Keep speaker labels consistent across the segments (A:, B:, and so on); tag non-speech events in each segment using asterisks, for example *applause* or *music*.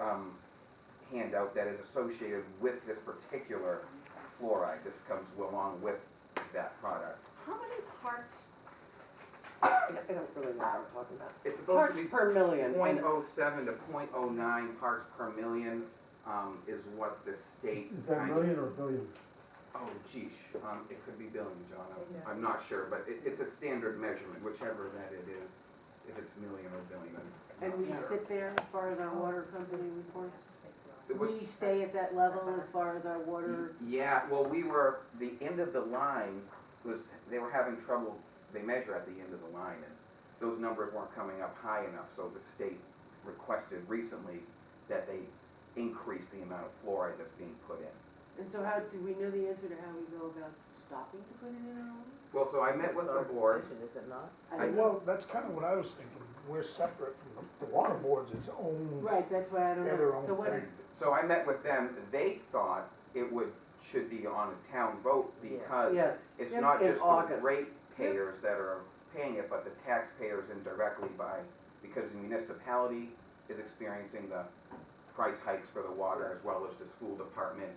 A: um, handout that is associated with this particular fluoride. This comes along with that product.
B: How many parts,
C: I don't really know what I'm talking about.
A: It's supposed
C: Parts
A: to be
C: per million.
A: point
C: and-
A: oh seven to point oh nine parts per million, um, is what the state
D: Is that
A: kind of.
D: million or billion?
A: Oh, geesh, um, it could be billion, John,
B: Yeah.
A: I'm, I'm not sure, but it, it's a standard measurement, whichever that it is, if it's million or billion, I'm
E: And
A: not
E: we
A: sure.
E: sit there as far as our water company reports?
A: It was-
E: We stay at that level as far as our water,
A: Yeah, well, we were, the end of the line was, they were having trouble, they measure at the end of the line, and those numbers weren't coming up high enough, so the state requested recently that they increase the amount of fluoride that's being put in.
E: and so how, do we know the answer to how we go about stopping to put it in our water?
A: Well, so I met with the board,
C: Decision, Is it not?
E: I don't know.
D: Well, that's kind of what I was thinking. We're separate from, the water board's its own.
E: Right, that's why I don't
D: They're their
E: know,
D: own
E: so what,
D: thing.
A: so I met with them, they thought it would, should be on a town vote
C: Yeah.
A: because
C: Yes.
A: It's
C: in-
A: not
C: in
A: just the
C: August.
A: ratepayers that are paying it, but the taxpayers indirectly by, because the municipality is experiencing the price hikes for the water as well as the school department.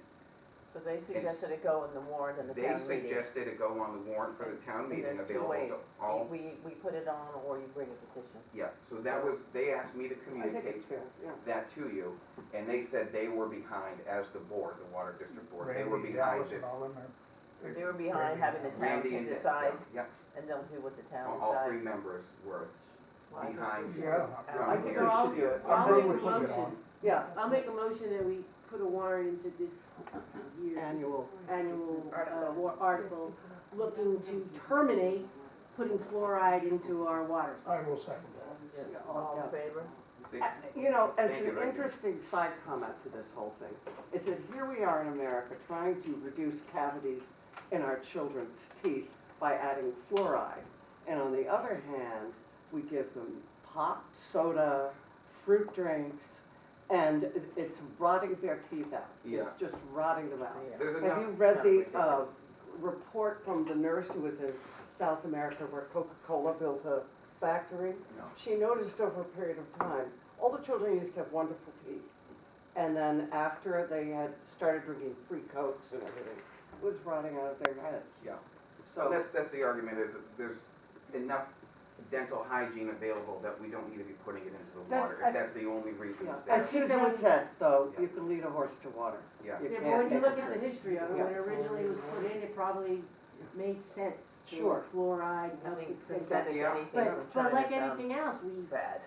C: So they suggested it go in the warrant and the
A: They
C: town meeting.
A: suggested it go on the warrant for the town
C: And
A: meeting
C: there's two
A: available
C: ways.
A: to all.
C: We, we put it on or you bring a petition.
A: Yeah, so that was, they asked me to
E: I think
A: communicate
E: it's fair, yeah.
A: that to you, and they said they were behind as the board, the water district board, they were
D: Randy
A: behind
D: Dallas and
A: this.
D: all them are-
C: They were behind having the town
A: Randy
C: can
A: and, Dan-
C: decide
A: yeah,
C: and they'll do what the
A: yeah,
C: town
A: all all three
C: decides.
A: members were
C: Well, I think
A: behind.
C: we should.
D: Yeah.
C: I
A: Um,
C: think
A: here,
E: so I'll
A: see
C: do
A: it.
C: it.
E: I'll
D: They
E: make a
D: would put it
E: motion,
D: on.
C: Yeah.
E: I'll make a motion that we put a warrant into this year's.
C: Annual.
E: Annual, uh,
C: Article.
E: war, article, looking to terminate putting fluoride into our water
D: I
E: system.
D: will second that.
C: Yes, all in favor?
A: They-
C: Uh,
F: Uh, You know, as
A: Thank you,
F: an
A: Randy.
F: interesting side comment to this whole thing, is that here we are in America trying to reduce cavities in our children's teeth by adding fluoride. And on the other hand, we give them pop, soda, fruit drinks, and it's rotting their teeth out.
A: Yeah.
F: It's just rotting them out.
C: Yeah.
A: There's
F: Have
A: enough
F: you read the
C: Not
F: uh,
C: ridiculous.
F: report from the nurse who was in South America where Coca-Cola built a factory?
A: No.
F: She noticed over a period of time, all the children used to have wonderful teeth. And then after they had started drinking free cokes and everything, it was rotting out of their heads.
A: Yeah. So
F: So,
A: that's, that's the argument, is that there's enough dental hygiene available that we don't need to be putting it into the
E: That's-
A: water,
E: I-
A: if that's the only reason
F: yeah.
A: it's
F: as
A: there.
F: Susan said, though,
A: Yeah.
F: you can lead a horse to water.
A: Yeah.
F: You
E: Yeah,
F: can't
E: but when you
F: make
E: look
F: it
E: at the
F: drink.
E: history of it, when it originally was put in, it probably made sense. to
F: Sure.
E: Fluoride,
C: I
E: up
C: think
E: to six.
C: synthetic
A: Yeah.
C: anything from
E: But, but
C: China
E: like anything
C: sounds
E: else, we,
C: bad.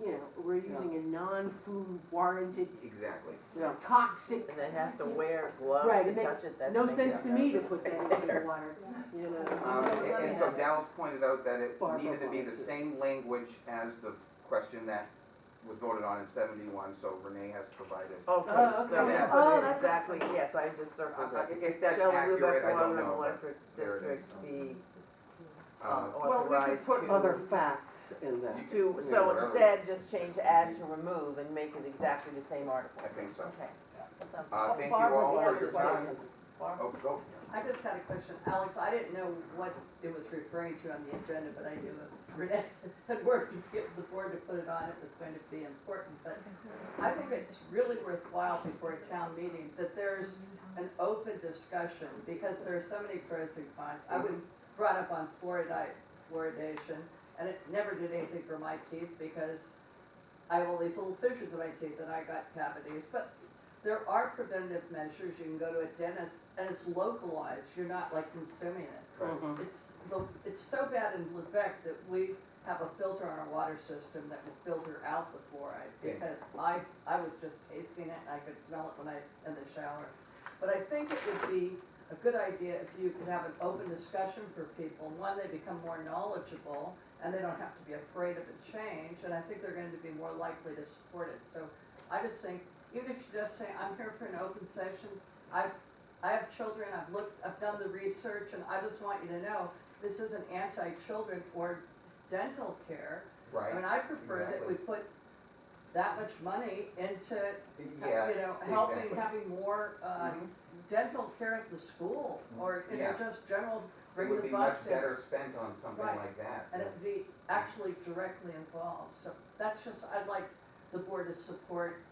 E: you know, we're using a non-food warranted
A: Exactly.
F: Yeah.
E: toxic,
C: And they have to wear gloves
E: Right,
C: to
E: it makes
C: touch it, that's.
E: no
C: making
E: sense to me to
C: sense
E: put that
C: right
E: into
C: there.
E: the water, you
A: Um,
E: know.
A: and- And so Dallas pointed out that it
F: Barbara
A: needed to be the
F: wanted to.
A: same language as the question that was voted on in seventy-one, so Renee has provided.
C: Okay,
E: Oh,
C: so
A: okay.
C: we
E: Oh,
C: put it
E: that's-
C: exactly, yes, I just
A: Uh,
C: circled
A: uh,
C: that.
A: If that's
C: Shall
A: accurate,
C: Lubec
A: I don't
C: Water and
A: know. but,
C: Electric
A: there it is.
C: District be um,
A: uh,
F: Well, we could
C: authorized
F: put
C: to-
F: other facts in there.
A: you-
C: To,
A: yeah,
C: so
A: whatever.
C: instead, just change add to remove and make it exactly the same article.
A: I think so.
C: Okay.
A: Uh, thank you
F: Oh, Barbara,
A: all
F: we have
A: for
F: a
A: your
F: question.
A: time. Oh, go.
G: I just had a question, Alex, I didn't know what it was referring to on the agenda, but I knew *laughs* it- Renee had worked to get the board to put it on, it was going to be important, but I think it's really worthwhile before a town meeting that there's an open discussion, because there are so many pros and cons. I was brought up on fluoride, fluoridation, and it never did anything for my teeth, because I have all these little fissures in my teeth and I got cavities, but there are preventive measures, you can go to a dentist, and it's localized, you're not like consuming it.
F: Mhm.
G: Um, It's, the- it's so bad in Lubec that we have a filter on our water system that will filter out the fluoride,
A: Yeah.
G: because I, I was just tasting it, and I could smell it when I, in the shower. But I think it would be a good idea if you could have an open discussion for people, one, they become more knowledgeable, and they don't have to be afraid of a change, and I think they're going to be more likely to support it, so I just think, even if you just say, I'm here for an open session, I've, I have children, I've looked, I've done the research, and I just want you to know, this isn't anti-children or dental care. I mean,
A: Right,
G: I prefer that we put that much money into,
A: yeah,
G: you know, helping,
A: exactly. Mm-hmm.
G: having more, uh, dental care at the school, or, you know,
A: Yeah.
G: just general,
A: it
G: bring
A: would
G: the
A: be
G: bus
A: much
G: in.
A: better spent on something
G: Right.
A: like that.
G: And it'd be actually directly involved, so that's just, I'd like the board to support